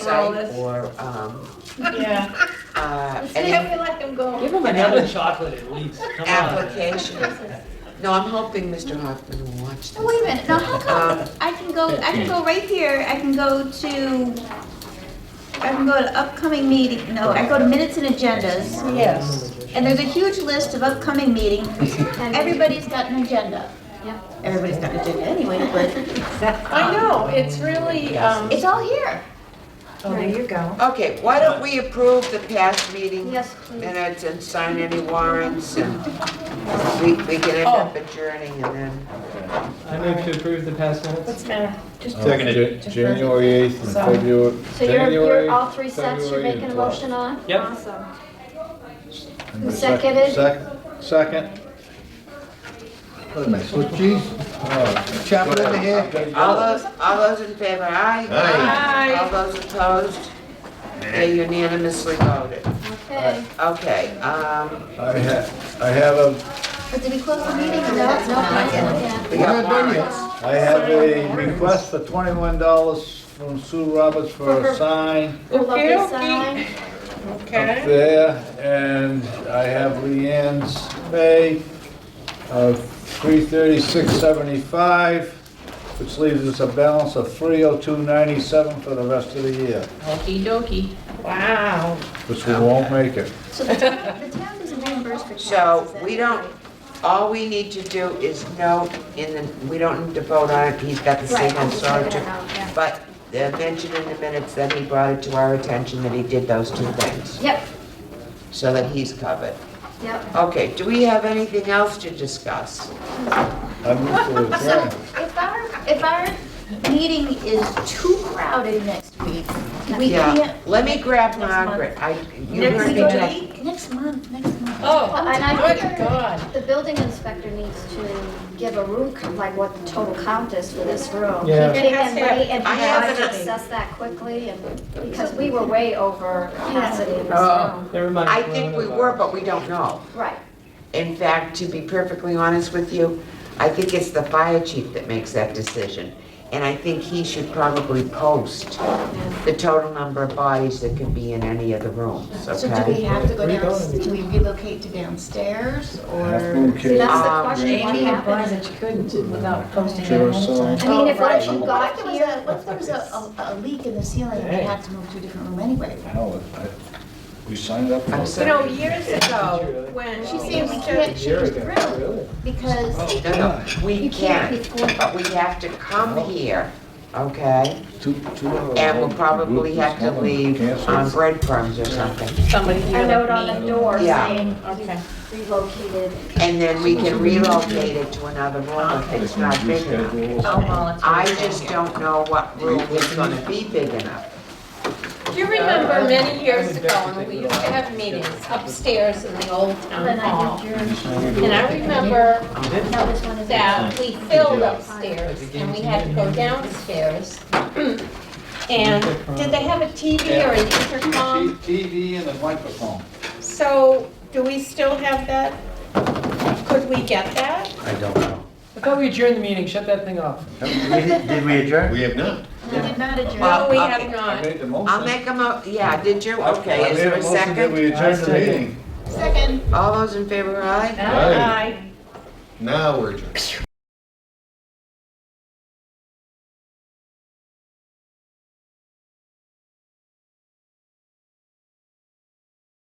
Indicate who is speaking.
Speaker 1: site or, um,
Speaker 2: Yeah.
Speaker 1: uh,
Speaker 3: Instead,
Speaker 1: any
Speaker 3: we let them go.
Speaker 2: Give him
Speaker 4: Another
Speaker 2: another.
Speaker 4: chocolate at least, come on.
Speaker 1: applications. No, I'm hoping Mr. Hoffman will watch
Speaker 3: No, wait a
Speaker 1: this.
Speaker 3: minute, now how come I can go, I can go right here, I can go to, I can go to upcoming meeting, no, I go to minutes and agendas,
Speaker 2: Yes.
Speaker 3: and there's a huge list of upcoming meetings, everybody's got an agenda. Everybody's got an agenda anyway, but
Speaker 2: I know, it's really, um,
Speaker 3: it's all here.
Speaker 5: Oh, There you go.
Speaker 1: Okay, why don't we approve the past meeting
Speaker 5: Yes, please.
Speaker 1: minutes and sign any warrants and we, we can end
Speaker 2: Oh.
Speaker 1: up adjourning and then.
Speaker 4: I move to approve the past minutes.
Speaker 2: what's the matter? Just
Speaker 6: Seconded. January 8th and
Speaker 2: Sorry.
Speaker 6: February.
Speaker 5: So you're,
Speaker 6: January,
Speaker 5: you're all three sets you're
Speaker 6: February,
Speaker 5: making a
Speaker 6: and
Speaker 5: motion on?
Speaker 4: Yep.
Speaker 5: Awesome.
Speaker 6: February.
Speaker 5: Seconded.
Speaker 6: Second. Second. Wait a minute, Swiss cheese? Oh, Chop it over here.
Speaker 1: All those, all those in favor, aye?
Speaker 6: Aye.
Speaker 1: All those opposed? They unanimously voted.
Speaker 5: Okay.
Speaker 1: Okay, um,
Speaker 6: I have, I have a,
Speaker 3: But did we close the meeting? No, no,
Speaker 1: we
Speaker 6: We're not
Speaker 1: got
Speaker 6: done yet.
Speaker 1: warrants.
Speaker 6: I have a request for twenty-one dollars from Sue Roberts for a sign
Speaker 5: Okay, okay.
Speaker 6: up there, and I have Leanne's pay of three thirty-six seventy-five, which leaves us a balance of three oh two ninety-seven for the rest of the year,
Speaker 2: Okey dokey. Wow.
Speaker 6: which we won't make it.
Speaker 3: So the town, the town doesn't reimburse for taxes.
Speaker 1: So
Speaker 3: then,
Speaker 1: we don't, all we need to do is note in the, we don't need to vote on it, he's got the
Speaker 3: Right,
Speaker 1: same
Speaker 3: I'm just checking
Speaker 1: authority.
Speaker 3: it out, yeah.
Speaker 1: But the mention in the minutes that he brought it to our attention that he did those two things,
Speaker 3: Yep,
Speaker 1: so that he's covered.
Speaker 3: yep.
Speaker 1: Okay, do we have anything else to discuss?
Speaker 6: I move to
Speaker 3: So
Speaker 6: adjourn.
Speaker 3: if our, if our meeting is too crowded next week, we
Speaker 1: Yeah,
Speaker 3: can't.
Speaker 1: let me grab
Speaker 3: month.
Speaker 1: Margaret, I, you
Speaker 2: Next
Speaker 1: heard me
Speaker 2: week.
Speaker 1: talk-
Speaker 3: Next month, next month.
Speaker 2: Oh,
Speaker 5: And I
Speaker 2: good
Speaker 5: think
Speaker 2: God.
Speaker 5: the building inspector needs to give a room, count, like what the total count is for this room.
Speaker 6: Yeah.
Speaker 5: He can wait and
Speaker 1: I have
Speaker 5: try to
Speaker 1: it.
Speaker 5: assess that quickly and, because we were way over capacity in this
Speaker 4: Oh,
Speaker 5: room.
Speaker 4: never mind.
Speaker 1: I think we were, but we don't know.
Speaker 5: Right.
Speaker 1: In fact, to be perfectly honest with you, I think it's the fire chief that makes that decision. And I think he should probably post the total number of bodies that can be in any of the rooms,
Speaker 3: So do we
Speaker 1: okay?
Speaker 3: have to go down, do we relocate to downstairs or?
Speaker 5: See,
Speaker 6: Okay.
Speaker 5: that's
Speaker 1: Um,
Speaker 5: the question, what
Speaker 2: Amy implied
Speaker 5: happens?
Speaker 2: that you couldn't without posting it.
Speaker 6: Sure,
Speaker 2: ahead of
Speaker 6: so-
Speaker 2: time.
Speaker 5: I mean, if
Speaker 3: Right,
Speaker 5: once
Speaker 3: but
Speaker 5: you
Speaker 3: What if
Speaker 5: got
Speaker 3: there was
Speaker 5: here,
Speaker 3: a, what if there was a, a a leak in the ceiling and we had to move to a different room anyway?
Speaker 6: Hell, I- we signed up. for
Speaker 1: I'm
Speaker 6: it.
Speaker 1: sorry.
Speaker 7: You know, years ago, when
Speaker 3: She said we
Speaker 7: to
Speaker 3: can't
Speaker 4: Here we
Speaker 3: change the
Speaker 4: go.
Speaker 3: room
Speaker 4: Really?
Speaker 3: because
Speaker 1: No, no, we
Speaker 3: you can't
Speaker 1: can,
Speaker 3: before.
Speaker 1: but we have to come here, okay?
Speaker 6: Two, two. hours.
Speaker 1: And we'll probably have to leave on
Speaker 6: Cancel.
Speaker 1: breadcrumbs or something.
Speaker 2: Somebody
Speaker 5: a
Speaker 2: here
Speaker 5: note
Speaker 2: like
Speaker 5: on
Speaker 2: me.
Speaker 5: the door
Speaker 1: Yeah.
Speaker 5: saying
Speaker 2: Okay.
Speaker 5: relocated.
Speaker 1: And then we can relocate it to another room if it's not big enough.
Speaker 2: I'll volunteer.
Speaker 1: I just don't know what room is gonna be big enough.
Speaker 7: Do you remember many years ago, when we used to have meetings upstairs in the old town
Speaker 5: Then I
Speaker 7: hall?
Speaker 5: did yours.
Speaker 7: And I remember
Speaker 5: No, this one is.
Speaker 7: that we filled upstairs, and we had to go downstairs. And did they have a TV or an intercom?
Speaker 6: TV and a microphone.
Speaker 7: So do we still have that? Could we get that?
Speaker 8: I don't know.
Speaker 4: I thought we adjourned the meeting, shut that thing off.
Speaker 8: Did we adjourn? We have not.
Speaker 3: We did not adjourn.
Speaker 7: No, we
Speaker 1: okay.
Speaker 7: have
Speaker 6: I
Speaker 7: not.
Speaker 6: made the motion.
Speaker 1: I'll make a mo, yeah, did you,
Speaker 6: I- I
Speaker 1: okay, is
Speaker 6: made
Speaker 1: there a
Speaker 6: motion that
Speaker 1: second?
Speaker 6: We adjourn the
Speaker 4: Second.
Speaker 6: meeting.
Speaker 3: Second.
Speaker 1: All those in favor, aye?
Speaker 8: Aye.
Speaker 7: Aye.
Speaker 8: Now we're adjourned.